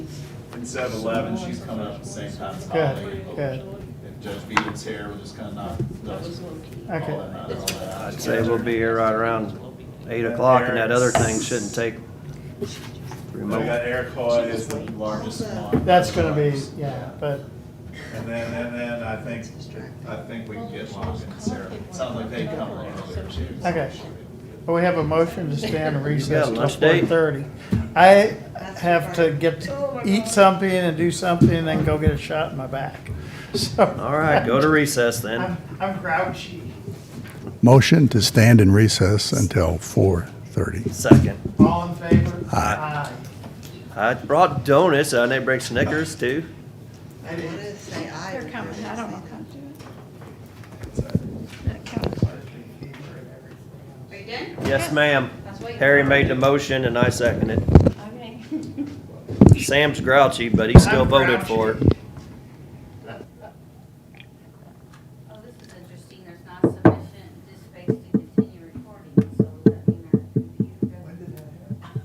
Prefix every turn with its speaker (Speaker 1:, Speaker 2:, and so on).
Speaker 1: instead of eleven, she's coming up at the same time as
Speaker 2: Good,
Speaker 1: Holly.
Speaker 2: good.
Speaker 1: And Judge Beaton's here, we're just gonna knock those. all
Speaker 2: Okay.
Speaker 1: that- all that out.
Speaker 3: I'd say we'll be here right around eight o'clock and that other thing shouldn't take
Speaker 1: We got
Speaker 3: remote.
Speaker 1: Eric Hoy is the largest one.
Speaker 2: That's gonna be, yeah, but,
Speaker 1: And then, and then uh, I think, I think we can get Locke and Sarah. It Sounds like they come a little earlier too.
Speaker 2: okay. Well, we have a motion to stand in recess
Speaker 3: got a
Speaker 2: till
Speaker 3: lunch date?
Speaker 2: four thirty. I have to get, to eat something and do something and then go get a shot in my back, so.
Speaker 3: All right, go to recess then.
Speaker 2: I'm, I'm grouchy.
Speaker 4: Motion to stand in recess until 4:30.
Speaker 3: Second.
Speaker 2: All in favor?
Speaker 4: Aye.
Speaker 3: I brought donuts. I need to bring Snickers too.
Speaker 2: Aye.
Speaker 5: What did it say? I.
Speaker 6: They're coming, I don't know how to do it.
Speaker 5: Are you done?
Speaker 3: Yes, ma'am. Harry made the motion and I seconded
Speaker 6: Okay.
Speaker 3: it. Sam's grouchy, but he still voted for it.
Speaker 5: Oh, this is interesting. There's not some